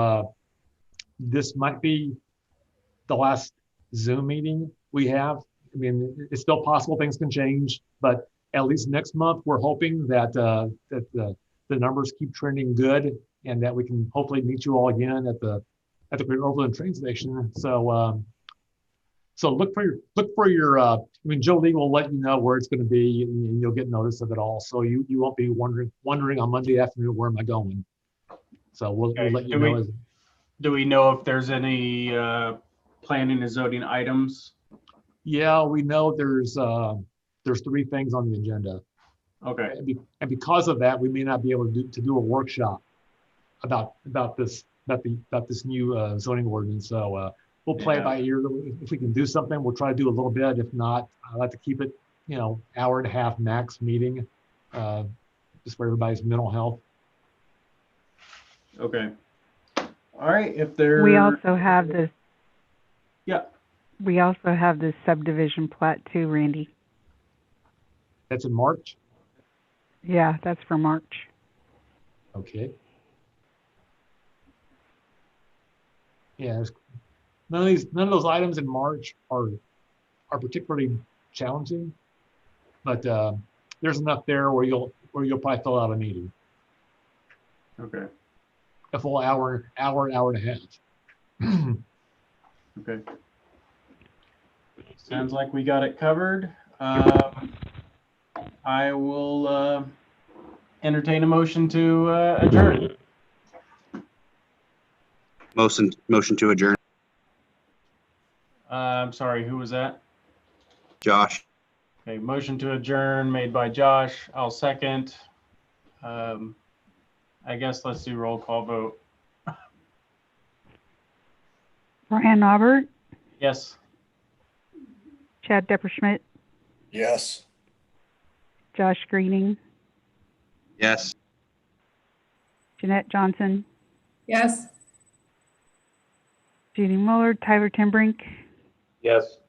Uh, This might be the last Zoom meeting we have. I mean, it's still possible things can change, but at least next month, we're hoping that, uh, that the, the numbers keep trending good and that we can hopefully meet you all again at the, at the Great Overland Train Station. So, um, so look for your, look for your, uh, I mean, Jolene will let you know where it's going to be and you'll get notice of it all. So you, you won't be wondering, wondering on Monday afternoon, where am I going? So we'll, we'll Okay, let you do we- know. as- Do we know if there's any uh, planning and zoning items? Yeah, we know there's, uh, there's three things on the agenda. Okay, And be- and because of that, we may not be able to do, to do a workshop about, about this, about the, about this new uh, zoning ordinance. So uh, we'll play it Yeah. by ear. If we can do something, we'll try to do a little bit. If not, I like to keep it, you know, hour and a half max meeting, uh, just for everybody's mental health. okay. All right, if there. We also have this, Yeah, we also have this subdivision plat too, Randy. That's in March. Yeah, that's for March. Okay. Yeah, there's- none of these, none of those items in March are, are particularly challenging. But uh, there's enough there where you'll, where you'll probably fill out a meeting, okay, a full hour, hour, hour and a half. okay. Sounds like we got it covered. Um, I will uh, entertain a motion to uh, adjourn. Motion, motion to adjourn. Uh, I'm sorry, who was that? Josh, Okay, motion to adjourn made by Josh. I'll second. Um, I guess let's do roll call vote. Ryan Aubert, Yes. Chad Depperschmidt, Yes. Josh Greening, yes. Jeanette Johnson, Yes. Judy Muller, Tyler Timbrink, Yes.